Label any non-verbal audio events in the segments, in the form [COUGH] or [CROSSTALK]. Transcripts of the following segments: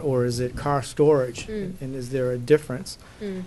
or is it car storage? Mm. And is there a difference? Mm.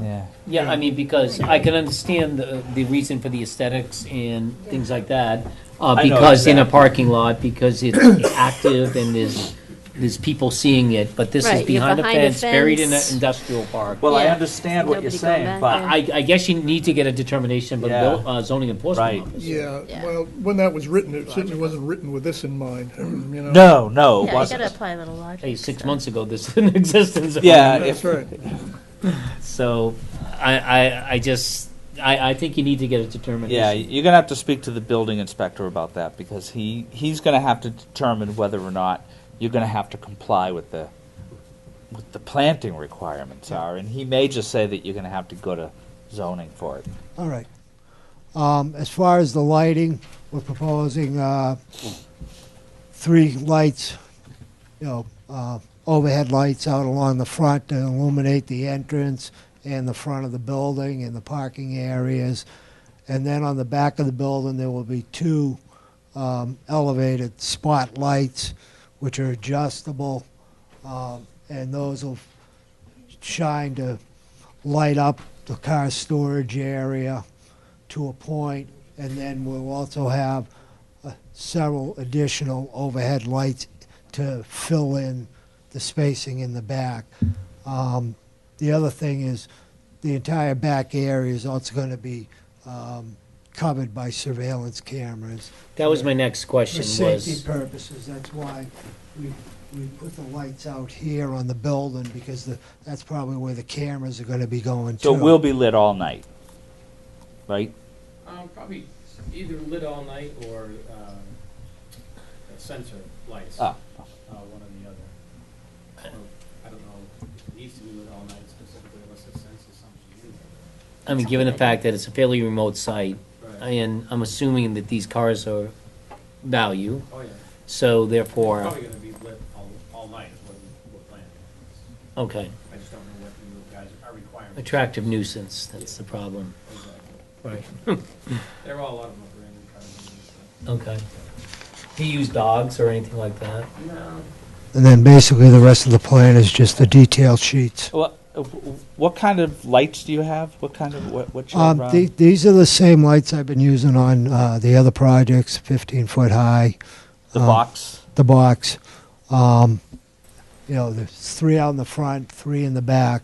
Yeah, yeah, I mean, because I can understand the, the reason for the aesthetics and things like that. Uh, know because in a exactly. parking lot, because it's active and there's, there's people seeing it, but this Right, is you're behind a behind a fence, buried in an fence. industrial park. Well, I Yeah. understand what you're Nobody going saying, back but there. I, I guess you need to get a determination from Yeah. the uh, zoning enforcement Right. officer. Yeah, Yeah. well, when that was written, it certainly wasn't written with this in mind, [CLEARS THROAT] you know? No, no, it Yeah, you gotta wasn't. apply a little logic. Hey, six so. months ago, this didn't exist in [LAUGHS] zoning. Yeah, That's Uh, if, right. So, I, I, I just, I, I think you need to get a determination. yeah, you're gonna have to speak to the building inspector about that, because he, he's gonna have to determine whether or not you're gonna have to comply with the, what the planting requirements are, and he may just say that you're gonna have to go to zoning for it. All right. Um, as far as the lighting, we're proposing, uh, three lights, you know, uh, overhead lights out along the front to illuminate the entrance and the front of the building and the parking areas. And then on the back of the building, there will be two, um, elevated spotlights, which are adjustable. Um, and those will shine to light up the car storage area to a point, and then we'll also have uh, several additional overhead lights to fill in the spacing in the back. Um, The other thing is, the entire back area is also going to be um, covered by surveillance cameras. That was my next question For was. safety purposes, that's why we, we put the lights out here on the building, because the, that's probably where the cameras are gonna be going to. So it will be lit all night, right? Um, probably either lit all night or, um, sensor lights. Ah. Uh, one or the other. Or, I don't know, it needs to be lit all night specifically unless it senses something in I mean, given the fact that it's a fairly remote site, there. and I'm assuming that these cars are value, Oh, yeah, so therefore, probably gonna be lit all, all night is what we- we're planning. okay, I just don't know what you guys are requiring. attractive nuisance, that's the problem. Exactly. Right. There are a lot of them brand new cars. and Okay. Do you use dogs or anything like that? stuff. No. And then basically, the rest of the plan is just the detail sheets. What, what kind of lights do you have? What kind of, what, what Um, shade the- round? these are the same lights I've been using on, uh, the other projects, fifteen foot high, The um, box? the box. Um, you know, there's three out in the front, three in the back,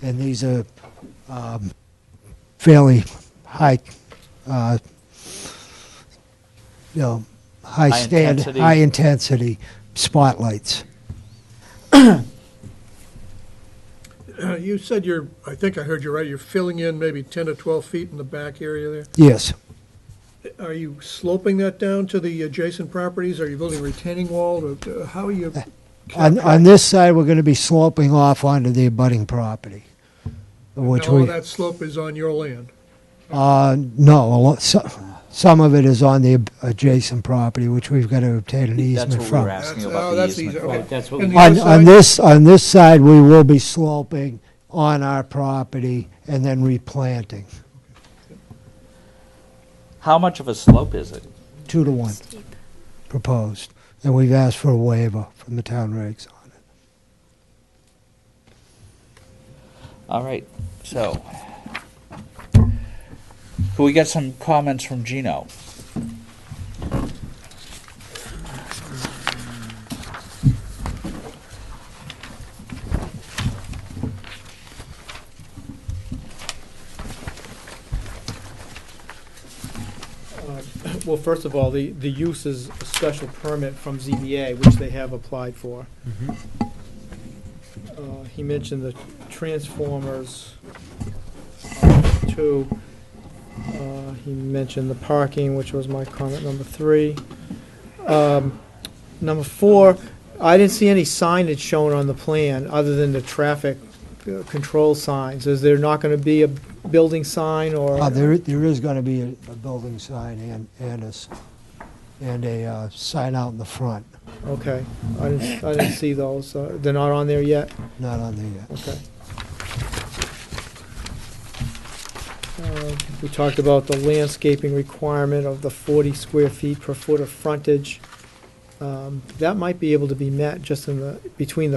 and these are, um, fairly high, uh, you know, high High stand, intensity. high intensity spotlights. [CLEARS THROAT] You said you're, I think I heard you right, you're filling in maybe 10 to 12 feet in the back area Yes. there. Are you sloping that down to the adjacent properties? Are you building retaining wall? Or, uh, How are you? On, on this side, we're gonna be sloping off onto the abutting property, which All we, that slope is on your land. uh, no, a lot, so- some of it is on the ab- adjacent property, which we've gotta obtain an That's easement what we were from. asking That's- about oh, the that's easement. easy, for. okay. Right, that's what, And we- the On, other on side? this, on this side, we will be sloping on our property and then replanting, How much of a slope is it? two to one Steep. proposed. And we've asked for a waiver from the town regs on it. All right, so. Can we get some comments from Gino? [COUGHS] Well, first of all, the, the use is a special permit from ZBA, which they have applied for. Uh, He mentioned the transformers, uh, two. Uh, He mentioned the parking, which was my comment number three. Um, Number four, I didn't see any signage shown on the plan, other than the traffic uh, control signs. Is there not gonna be a building sign or? Uh, there, there is gonna be a, a building sign and, and a, s- and a, uh, sign out in the front, Okay, I didn't, I didn't see those, uh, they're not on there yet, not on the, uh, okay. Uh, We talked about the landscaping requirement of the forty square feet per foot of frontage. Um, That might be able to be met just in the, between the